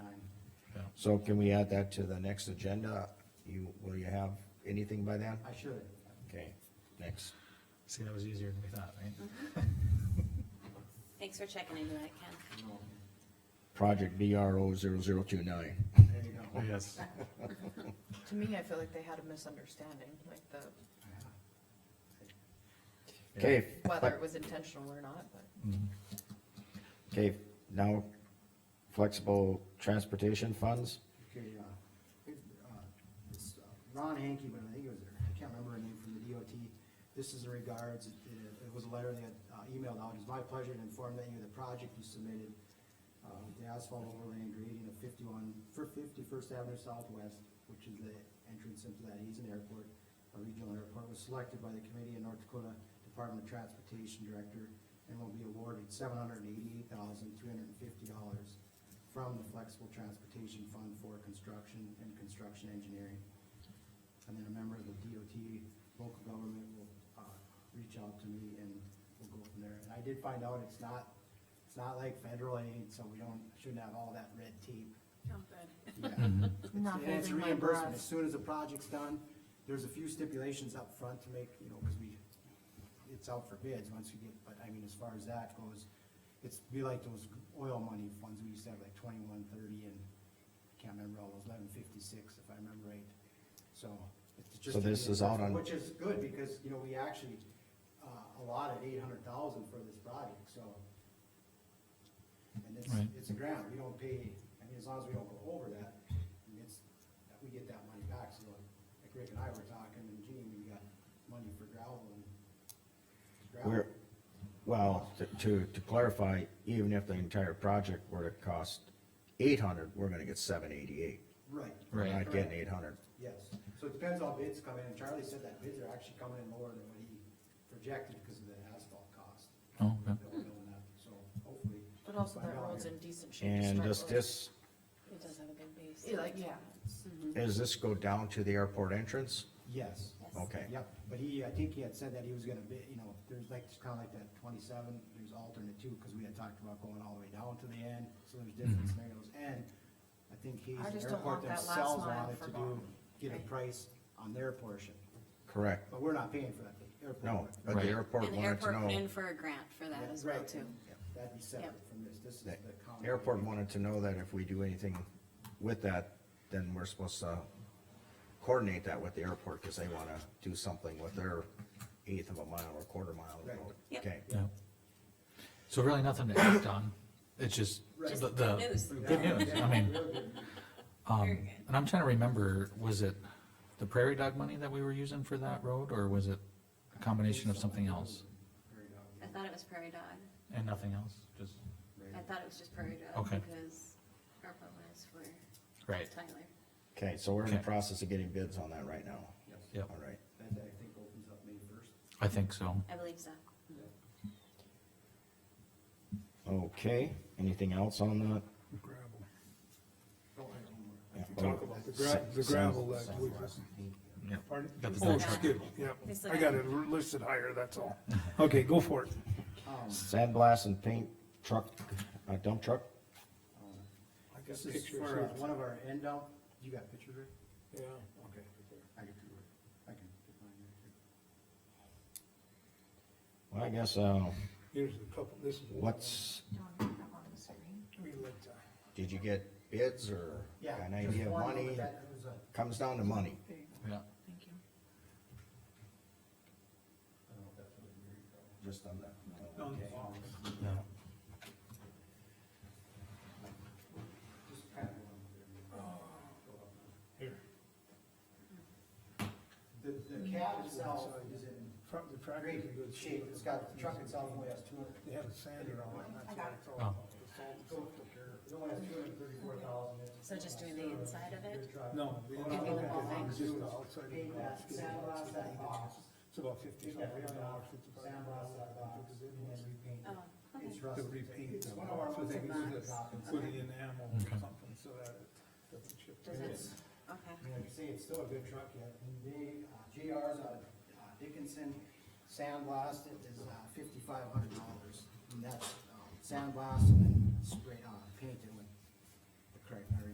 So can we add that to the next agenda? You, will you have anything by then? I should. Okay, next. See, that was easier than we thought, right? Thanks for checking into that, Ken. No. Project BRO zero zero two nine. There you go. Yes. To me, I feel like they had a misunderstanding, like the, Okay. whether it was intentional or not, but. Mm-hmm. Okay, now flexible transportation funds, Okay, uh, it, uh, it's, uh, Ron Hankey, but I think it was, I can't remember her name from the DOT. This is in regards, it, it was a letter they had uh, emailed out. It's my pleasure to inform that you the project you submitted, uh, the asphalt overlay and grading of fifty-one, for fifty-first Avenue Southwest, which is the entrance into that Hazen Airport, a regional airport, was selected by the committee and North Dakota Department of Transportation Director and will be awarded seven hundred and eighty-eight thousand, three hundred and fifty dollars from the Flexible Transportation Fund for Construction and Construction Engineering. And then a member of the DOT, local government will, uh, reach out to me and we'll go from there. And I did find out it's not, it's not like federal aid, so we don't, shouldn't have all that red tape. Yeah. Mm-hmm. Not And it's holding my reimbursement. breath. As soon as the project's done, there's a few stipulations up front to make, you know, cause we, it's out for bids once we get, but I mean, as far as that goes, it's, be like those oil money funds, we used to have like twenty-one, thirty, and I can't remember all those, eleven fifty-six, if I remember right. So, it's just. So this is out on- Which is good, because, you know, we actually, uh, allotted eight hundred thousand for this project, so. And it's, Right. it's a grant, we don't pay, I mean, as long as we don't go over that, and it's, we get that money back, so like Rick and I were talking, and Gene, we got money for gravel and. gravel. where, well, to- to, to clarify, even if the entire project were to cost eight hundred, we're gonna get seven eighty-eight. Right. We're Right. not getting eight hundred. Yes, so it depends how bids come in, and Charlie said that bids are actually coming in lower than what he projected because of the asphalt cost. Oh, okay. That we're building up, so hopefully. But also by that now road's here. in decent shape. to And start does with. this, It does have a good base. Yeah, Like, yeah, it's- Mm-hmm. does this go down to the airport entrance? Yes. Okay. Yep, but he, I think he had said that he was gonna bid, you know, there's like, it's kinda like that twenty-seven, there's alternate two, cause we had talked about going all the way down to the end, so there's Mm-hmm. different scenarios, and I think he's, I just the don't airport want that last themselves mile wanted to do, forgotten. get a Right. price on their portion, Correct. but we're not paying for that, the airport. No, would. but the Right. airport And the wanted to airport went in know, for a grant for that Yeah, as well right, too. yeah, That'd be separate Yep. from this, this is the the county. airport wanted to know that if we do anything with that, then we're supposed to coordinate that with the airport, cause they wanna do something with their eighth of a mile or quarter mile of Right. road. Yep. Okay, Yeah. So really nothing to act on, it's just Right. the, Just the. good news. Good news, I mean, Real good. Very um, good. and I'm trying to remember, was it the prairie dog money that we were using for that road, or was it a combination of something else? Very good, I thought it was Prairie Dog. And nothing else, just, very I good. thought it was just Prairie Dog Okay. because ARPA was for right, Tyler. okay, so we're in the Okay. process of getting bids on that right now. Yes. yep, All right. That, I think, opens up May first. I think so. I believe so. Okay, anything else on that? gravel. Oh. Yeah, Talk oh, about the gra- the South- gravel that South- we Southwest. Yep. Pardon? Got the Oh, dump truck. skid, yeah, It's I like- got it listed higher, that's all. Okay, go for it. Um, Sandblast and paint truck, uh, dump truck? um, I got This is pictures for uh, here. one of our end dump, you got pictures, Rick? Yeah. Okay. I can, do it. I can. get mine right Well, I guess, uh, Here's a couple, this is. what's, We looked, uh, did you get bids or here. Yeah. an just idea of one, money? but that was a- Comes down to money. Yeah, I don't know if that's what it is. Just on that. on the Okay. box. No. Just kind of go on there. Go up. Uh, Here, The, the cab itself is in truck, the tractor in great good shape, shape. it's got, the truck itself only has two hundred, They had a sander on it, that's why it's all. Oh. it's all- it's all took care it only has two hundred and thirty-four thousand. So just doing the inside of it? of. No. they didn't do that. It's just the outside of the Paint that, box, it's about sandblast that box, It's about fifty take that something rim out, dollars, fifty-five sandblast that box, dollars. and then repaint Oh, it. okay. It's to rusted. repaint It's them, one of our so they ones can that use knocks. it, put it in ammo or Okay. something, so that it doesn't chip. Does in. it, okay. I mean, Like I say, it's still a good truck yet, and they, uh, JR's out of uh, Dickinson, sandblast it is, uh, fifty-five hundred dollars. And that's, um, sandblast and then spray, uh, paint it